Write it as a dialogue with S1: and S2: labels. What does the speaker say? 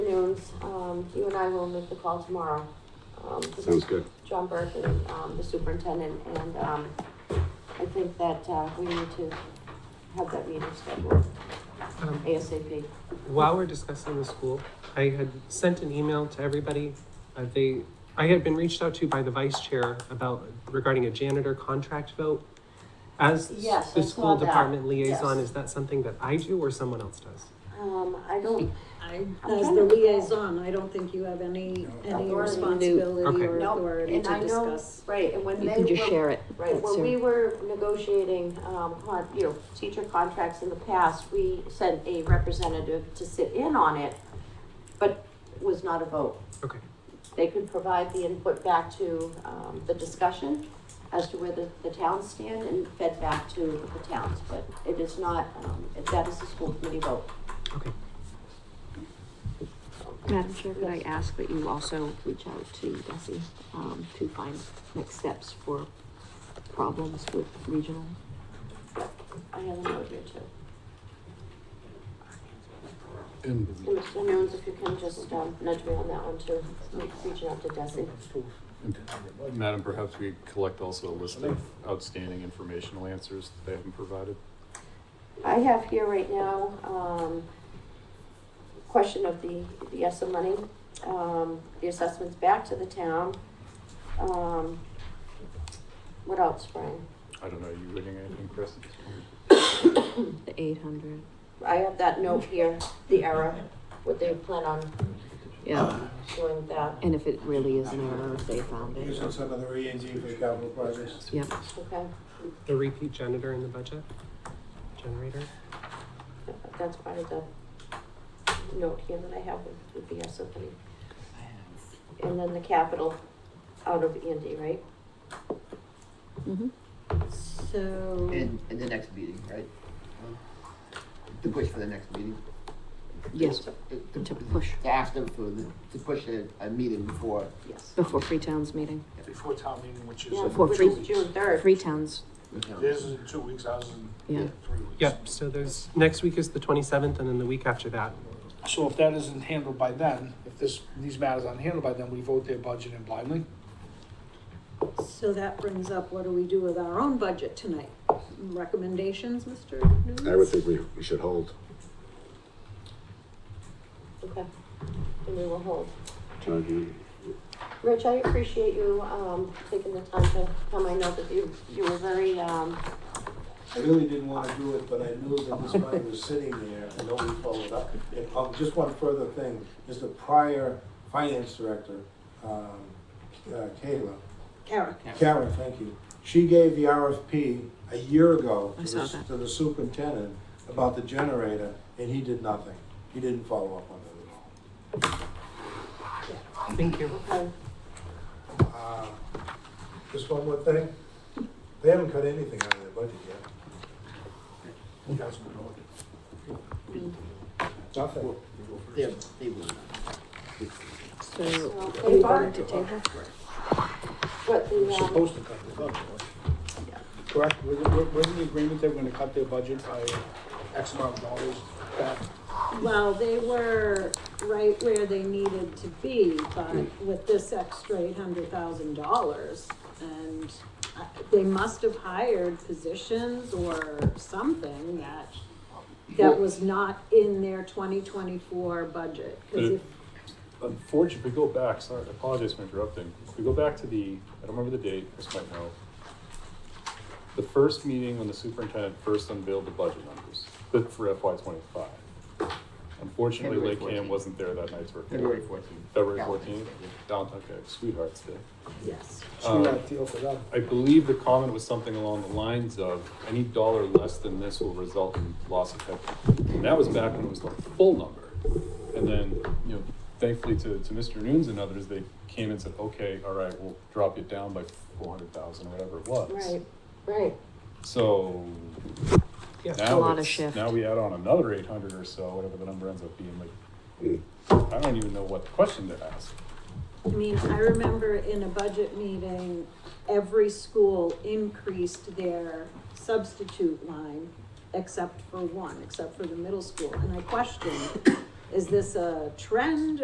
S1: comes, um, you and I will make the call tomorrow. Um, this is
S2: Sounds good.
S1: John Burke and, um, the superintendent, and, um, I think that, uh, we need to have that meeting scheduled
S3: Um,
S1: ASAP.
S3: While we're discussing the school, I had sent an email to everybody. Uh, they, I had been reached out to by the vice chair about regarding a janitor contract vote. As
S1: Yes, I
S3: the
S1: saw
S3: school
S1: that.
S3: department liaison,
S1: Yes.
S3: is that something that I do or someone else does?
S1: Um, I don't,
S4: I,
S1: I'm
S4: as
S1: trying
S4: the
S1: to recall.
S4: liaison, I don't think you have any, any
S1: Authority.
S4: responsibility
S3: Okay.
S4: or
S1: Nope,
S4: authority to
S1: and I know,
S4: discuss.
S1: right, and when they
S5: You
S1: were.
S5: can just share it.
S1: Right,
S5: That's
S1: when we
S5: it.
S1: were negotiating, um, con, you know, teacher contracts in the past, we sent a representative to sit in on it, but it was not a vote.
S3: Okay,
S1: They could provide the input back to, um, the discussion as to where the, the towns stand and fed back to the towns, but it is not, um, that is the school committee vote.
S3: okay.
S5: Madam Chair, could I ask that you also reach out to Desi, um, to find next steps for problems with regional?
S1: I have a note here too.
S6: And
S1: And Mr. Nunes, if you can just, um, nudge me on that one too, reaching out to Desi.
S7: Madam, perhaps we collect also a list of outstanding informational answers that they haven't provided.
S1: I have here right now, um, question of the, the ESSA money, um, the assessments back to the town. Um, what else, Brian?
S7: I don't know, are you reading anything, Chris?
S5: The eight hundred,
S1: I have that note here, the error, what they plan on
S5: yeah,
S1: doing with that,
S5: and if it really is an error, if they found it.
S8: Using some of the E and G for capital projects.
S5: Yep,
S1: okay?
S3: The repeat janitor in the budget? Generator?
S1: That's part of the note here that I have with, with the ESSA money. And then the capital out of E and D, right?
S5: mm-hmm.
S4: So,
S9: In, in the next meeting, right? To push for the next meeting?
S5: Yes,
S9: To-
S5: to push
S9: To ask them for, the- to push a, a meeting before.
S1: Yes.
S5: before Free Towns meeting.
S8: Before town meeting, which is,
S1: Yeah,
S5: For
S1: which
S5: free-
S1: is June third.
S5: Free Towns,
S9: you know.
S8: theirs is in two weeks, ours is
S5: yeah.
S8: in three weeks.
S3: Yep, so there's, next week is the twenty-seventh and then the week after that.
S10: So if that isn't handled by then, if this, these matters aren't handled by then, we vote their budget in blindly?
S4: so that brings up, what do we do with our own budget tonight? Recommendations, Mr. Nunes?
S2: I would think we, we should hold.
S1: Okay, and we will hold.
S2: John, you-
S1: Rich, I appreciate you, um, taking the time to come. I know that you, you were very, um,
S8: I really didn't wanna do it, but I knew that this money was sitting there, and nobody followed up. And, um, just one further thing, is the prior finance director, um, uh, Kayla,
S4: Karen?
S8: Karen, thank you, she gave the RFP a year ago
S5: I
S8: to
S5: saw
S8: the,
S5: that.
S8: to the superintendent about the generator, and he did nothing. He didn't follow up on it at all.
S3: Thank you.
S1: okay,
S8: Uh, Just one more thing, they haven't cut anything out of their budget yet. Councilman Horton. Nothing.
S9: They, they will.
S5: So
S1: So,
S5: are we going to table?
S1: but
S10: We're
S1: the, um,
S10: supposed to cut their budget, right? Correct, we're, we're, we're in the agreement that we're gonna cut their budget by X amount of dollars back.
S4: Well, they were right where they needed to be, but with this extra eight hundred thousand dollars, and uh, they must have hired positions or something that, that was not in their twenty twenty-four budget, cause if,
S7: Unfortunately, if we go back, sorry, I apologize for interrupting. If we go back to the, I don't remember the date, Chris might know. The first meeting when the superintendent first unveiled the budget numbers, the- for FY twenty-five. Unfortunately,
S9: February
S7: Lake Cam
S9: 14th.
S7: wasn't there that night to record.
S9: February fourteenth.
S7: February fourteenth, Valentine's Day, sweetheart's day.
S4: yes.
S10: So we got a deal for them.
S7: I believe the comment was something along the lines of, any dollar less than this will result in loss of headcount. And that was back when it was the full number. And then, you know, thankfully to, to Mr. Nunes and others, they came and said, okay, all right, we'll drop it down by four hundred thousand, or whatever it was.
S1: um, right, right,
S7: So
S3: Yeah.
S7: now
S5: lot of
S7: it's-
S5: shift.
S7: Now we add on another eight hundred or so, whatever the number ends up being, like,
S2: mm,
S7: I don't even know what question to ask.
S4: I mean, I remember in a budget meeting, every school increased their substitute line except for one, except for the middle school. And I questioned, is this a trend